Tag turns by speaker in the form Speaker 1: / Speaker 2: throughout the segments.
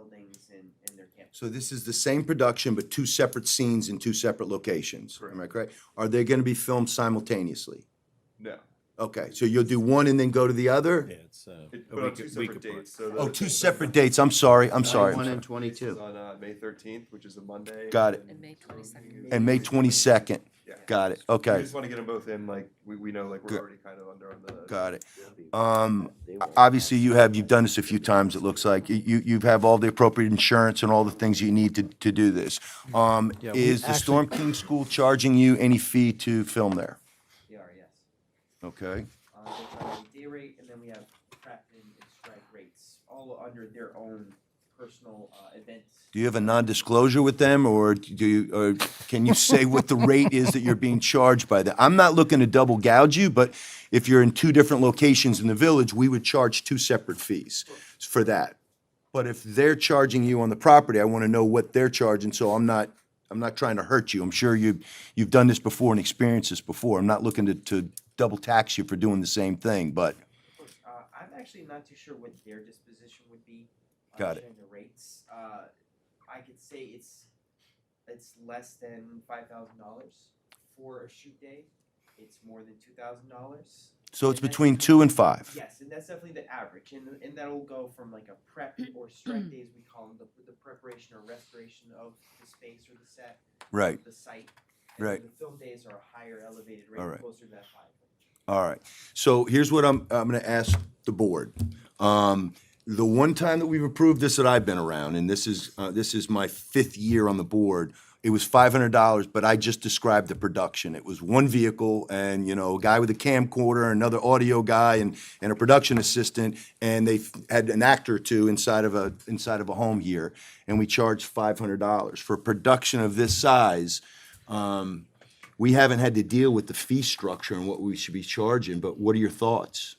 Speaker 1: buildings and, and their campus.
Speaker 2: So this is the same production, but two separate scenes in two separate locations. Am I correct? Are they going to be filmed simultaneously?
Speaker 3: No.
Speaker 2: Okay, so you'll do one and then go to the other?
Speaker 4: Yeah, it's, uh,
Speaker 3: It,
Speaker 4: a
Speaker 3: but on
Speaker 4: week-
Speaker 3: two
Speaker 4: week
Speaker 3: separate
Speaker 4: apart.
Speaker 3: dates. So the-
Speaker 2: Oh, two
Speaker 3: the
Speaker 2: separate dates. I'm sorry. I'm sorry.
Speaker 5: One
Speaker 2: I'm
Speaker 5: and
Speaker 2: sorry.
Speaker 3: first is
Speaker 5: twenty-two.
Speaker 3: on uh, May 13th, which is a Monday.
Speaker 2: Got it.
Speaker 6: And May 22nd.
Speaker 2: And May twenty-second.
Speaker 3: Yeah.
Speaker 2: Got it.
Speaker 3: We
Speaker 2: Okay,
Speaker 3: just want to get them both in. Like we, we know, like we're
Speaker 2: Good.
Speaker 3: already kind of under on the.
Speaker 2: got it.
Speaker 1: They'll be-
Speaker 2: Um,
Speaker 1: they
Speaker 2: o-
Speaker 1: won't
Speaker 2: obviously
Speaker 1: have-
Speaker 2: you have, you've done this a few times, it looks like. You, you- you have all the appropriate insurance and all the things you need to, to do this. Um,
Speaker 4: Yeah, we
Speaker 2: is the
Speaker 4: actually-
Speaker 2: Storm King School charging you any fee to film there?
Speaker 1: They are, yes. E
Speaker 2: Okay,
Speaker 1: Uh, they have a day rate, and then we have prep and, and strike rates, all under their own personal, uh, events.
Speaker 2: do you have a non-disclosure with them or do you, or can you say what the rate is that you're being charged by them? I'm not looking to double gouge you, but if you're in two different locations in the village, we would charge two separate fees for that. But if they're charging you on the property, I want to know what they're charging, so I'm not, I'm not trying to hurt you. I'm sure you, you've done this before and experienced this before. I'm not looking to, to double tax you for doing the same thing, but
Speaker 1: Of course, uh, I'm actually not too sure what their disposition would be. uh,
Speaker 2: Got it.
Speaker 1: sharing The rates, uh, I could say it's, it's less than five thousand dollars for a shoot day. It's more than two thousand dollars.
Speaker 2: so it's between two and five.
Speaker 1: Yes, and that's definitely the average, and, and that'll go from like a prep or strike days, we call them, the, the preparation or restoration of the space or the set.
Speaker 2: Right,
Speaker 1: The site. and
Speaker 2: Right.
Speaker 1: The film days are a higher elevated
Speaker 2: All
Speaker 1: rate,
Speaker 2: right.
Speaker 1: closer to that five.
Speaker 2: all right. So here's what I'm, I'm going to ask the board. Um, the one time that we've approved this that I've been around, and this is, uh, this is my fifth year on the board, it was five hundred dollars, but I just described the production. It was one vehicle and, you know, a guy with a camcorder, another audio guy and, and a production assistant. And they f- had an actor or two inside of a, inside of a home here. And we charged five hundred dollars for a production of this size. Um, we haven't had to deal with the fee structure and what we should be charging, but what are your thoughts?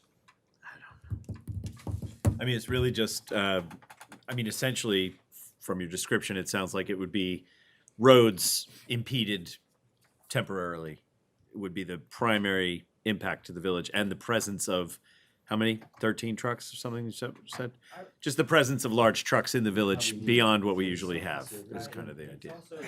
Speaker 4: I mean, it's really just, uh, I mean, essentially, from your description, it sounds like it would be roads impeded temporarily would be the primary impact to the village and the presence of how many? 13 trucks or something you said? said?
Speaker 1: I-
Speaker 4: Just the presence of large trucks in the
Speaker 5: How
Speaker 4: village
Speaker 5: we
Speaker 4: beyond
Speaker 5: use
Speaker 4: what we
Speaker 5: it.
Speaker 4: usually have is
Speaker 1: Uh,
Speaker 4: kind of the
Speaker 1: it's
Speaker 4: idea.
Speaker 1: Also, it's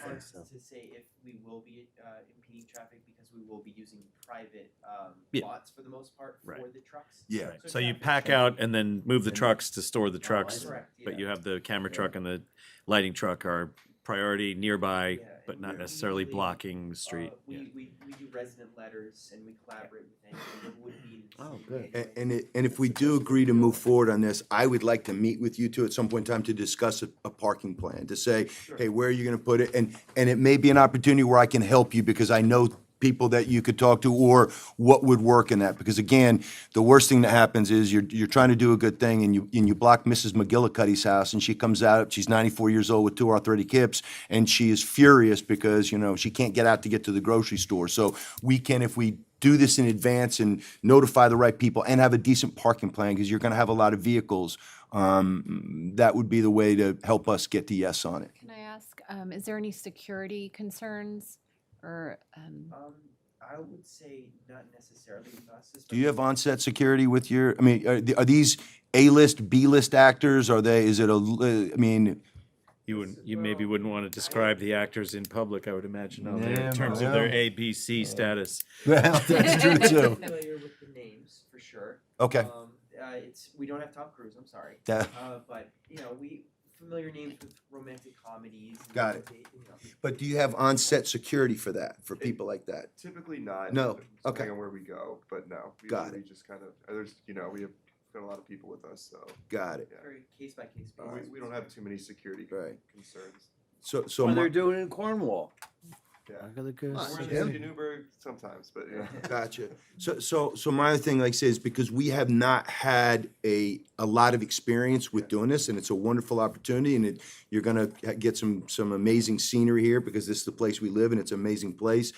Speaker 1: hard to say if we will be uh, impeding traffic because we will be using private um,
Speaker 4: Yeah.
Speaker 1: lots for the most part
Speaker 4: Right.
Speaker 1: for the trucks.
Speaker 2: Yeah.
Speaker 4: Right. So you pack out and then move the trucks to store the trucks.
Speaker 1: Correct, Oh, yeah.
Speaker 4: But you have the camera truck and the lighting truck are priority nearby,
Speaker 1: Yeah,
Speaker 4: but
Speaker 1: and
Speaker 4: not
Speaker 1: we
Speaker 4: necessarily
Speaker 1: usually,
Speaker 4: blocking street.
Speaker 1: Uh, we, we, we do resident letters and we collaborate with anyone who would be. in the
Speaker 5: Oh,
Speaker 1: city
Speaker 5: good.
Speaker 2: And,
Speaker 1: anyway.
Speaker 2: and it, and if we do agree to move forward on this, I would like to meet with you two at some point in time to discuss a, a parking plan, to say, hey, where are you gonna put it? And, and it may be an opportunity where I can help you because I know people that you could talk to or what would work in that. Because again, the worst thing that happens is you're, you're trying to do a good thing and you, and you block Mrs. McGillicuddy's house and she comes out, she's ninety-four years old with two arthritic hips and she is furious because, you know, she can't get out to get to the grocery store. So we can, if we do this in advance and notify the right people and have a decent parking plan because you're going to have a lot of vehicles. Um, that would be the way to help us get the yes on it.
Speaker 6: Can I ask, um, is there any security concerns or, um,
Speaker 1: Um, I would say not necessarily with us.
Speaker 2: Do you have
Speaker 1: especially-
Speaker 2: onset security with your? I mean, are, th- are these A-list, B-list actors? Are they? Is it a? l- uh, I mean,
Speaker 4: You wouldn't, you maybe
Speaker 1: Well,
Speaker 4: wouldn't want to describe the actors in public, I would imagine, out there
Speaker 2: Yeah,
Speaker 4: in terms of their
Speaker 2: well.
Speaker 4: A, B, C status.
Speaker 2: well,
Speaker 6: that's true,
Speaker 1: I'm
Speaker 6: too.
Speaker 1: Familiar with the names for sure.
Speaker 2: Okay,
Speaker 1: Um, uh, it's we don't have Tom Cruise. I'm sorry,
Speaker 2: That-
Speaker 1: uh, but you know we familiar names with romantic comedies. and
Speaker 2: Got it.
Speaker 1: they- you know.
Speaker 2: but do you have onset security for that? For people like that?
Speaker 3: Typically not.
Speaker 2: No,
Speaker 3: depending
Speaker 2: okay.
Speaker 3: on where we go, but no. We
Speaker 2: Got
Speaker 3: usually just kind of there's you know we have got a lot of people with us, so
Speaker 2: Got it.
Speaker 3: Yeah.
Speaker 1: Very case by case
Speaker 3: uh,
Speaker 1: basis.
Speaker 3: we, we don't have too many security
Speaker 2: Right.
Speaker 3: concerns.
Speaker 2: So, so
Speaker 5: Well, they're
Speaker 2: my,
Speaker 5: doing it in Cornwall.
Speaker 3: Yeah.
Speaker 5: I gotta go
Speaker 2: Nice.
Speaker 3: We're in
Speaker 5: see
Speaker 3: the
Speaker 2: Yeah.
Speaker 5: them.
Speaker 3: city of Newburgh sometimes, but yeah.
Speaker 2: Gotcha. So, so, so my other thing, like I say, is because we have not had a, a lot of experience with doing this, and it's a wonderful opportunity, and it, you're gonna ha- get some, some amazing scenery here, because this is the place we live, and it's an amazing place.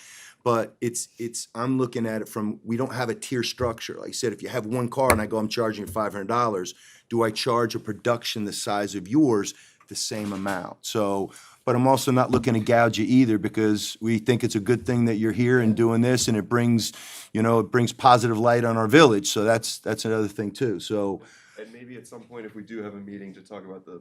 Speaker 2: But it's, it's, I'm looking at it from, we don't have a tier structure. Like I said, if you have one car and I go, I'm charging you five hundred dollars, do I charge a production the size of yours the same amount? So, but I'm also not looking to gouge you either because we think it's a good thing that you're here and doing this and it brings, you know, it brings positive light on our village. So that's, that's another thing too. So,
Speaker 3: and maybe at some point if we do have a meeting to talk about the